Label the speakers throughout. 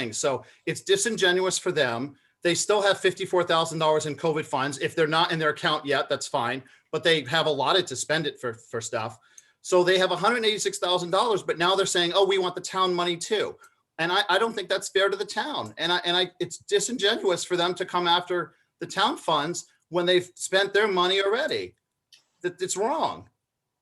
Speaker 1: things. So it's disingenuous for them. They still have fifty-four thousand dollars in COVID funds. If they're not in their account yet, that's fine, but they have allotted to spend it for, for stuff. So they have hundred and eighty-six thousand dollars, but now they're saying, oh, we want the town money too. And I, I don't think that's fair to the town. And I, and I, it's disingenuous for them to come after the town funds when they've spent their money already. That, it's wrong.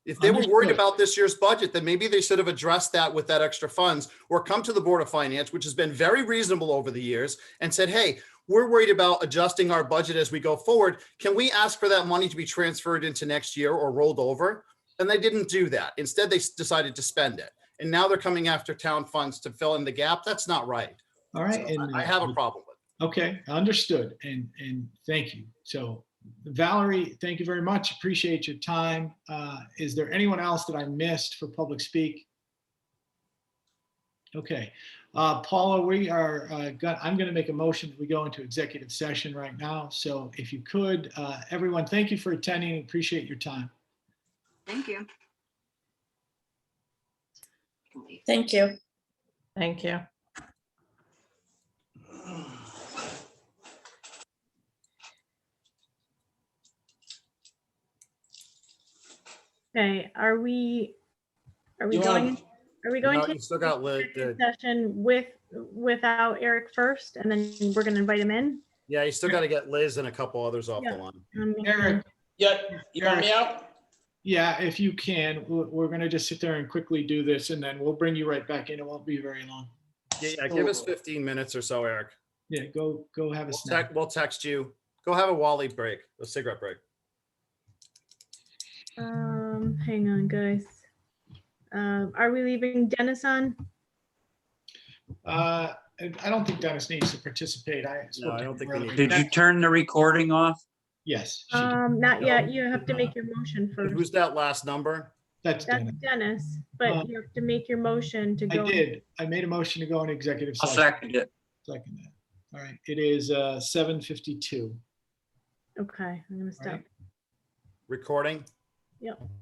Speaker 1: If they were worried
Speaker 2: Understood.
Speaker 1: about this year's budget, then maybe they should have addressed that with that extra funds or come to the Board of Finance, which has been very reasonable over the years and said, hey, we're worried about adjusting our budget as we go forward. Can we ask for that money to be transferred into next year or rolled over? And they didn't do that. Instead, they s- decided to spend it. And now they're coming after town funds to fill in the gap. That's not right.
Speaker 2: All
Speaker 1: So
Speaker 2: right. and,
Speaker 1: I I
Speaker 2: uh,
Speaker 1: have a problem with it.
Speaker 2: Okay, understood. And, and thank you. So Valerie, thank you very much. Appreciate your time. Uh, Is there anyone else that I missed for public speak? Okay, Uh, Paula, we are, uh, go- I'm going to make a motion that we go into executive session right now. So if you could, uh, everyone, thank you for attending. Appreciate your time.
Speaker 3: Thank you.
Speaker 4: Thank you.
Speaker 5: Thank you.
Speaker 6: Okay, are we, are we
Speaker 2: You
Speaker 6: going,
Speaker 2: wanna-
Speaker 6: are we
Speaker 1: You
Speaker 6: going
Speaker 1: know,
Speaker 6: to
Speaker 1: You still got lit.
Speaker 6: executive session with, without Eric first, and then we're gonna invite him in?
Speaker 1: Yeah, you still got to get Liz and a couple others off the
Speaker 6: Yeah.
Speaker 1: line.
Speaker 6: Um,
Speaker 2: Eric,
Speaker 7: Yeah, you hear me out?
Speaker 2: yeah, if you can, we're, we're going to just sit there and quickly do this and then we'll bring you right back in. It won't be very long.
Speaker 1: Yeah, yeah, give us 15 minutes or so, Eric.
Speaker 2: Yeah, go, go have a
Speaker 1: We'll
Speaker 2: snack.
Speaker 1: text, we'll text you. Go have a Wally break, a cigarette break.
Speaker 6: Um, hang on, guys. Um, are we leaving Dennis on?
Speaker 2: Uh, I I don't think Dennis needs to participate. I. spoke
Speaker 1: I
Speaker 2: to
Speaker 1: don't
Speaker 2: him
Speaker 1: think we
Speaker 2: earlier.
Speaker 1: need
Speaker 7: Did you turn the recording off?
Speaker 2: Yes, she did.
Speaker 6: Um, not yet. You have to make your motion
Speaker 1: And
Speaker 6: first.
Speaker 1: Who's that last number?
Speaker 2: that's
Speaker 6: That's
Speaker 2: Dennis.
Speaker 6: Dennis,
Speaker 2: Uh,
Speaker 6: but you have to make your motion to
Speaker 2: I
Speaker 6: go.
Speaker 2: did. I made a motion to go in executive
Speaker 7: I'll
Speaker 2: session.
Speaker 7: second it.
Speaker 2: Second that. All right, it is uh, 7:52.
Speaker 6: Okay, I'm gonna stop.
Speaker 2: Right.
Speaker 1: Recording?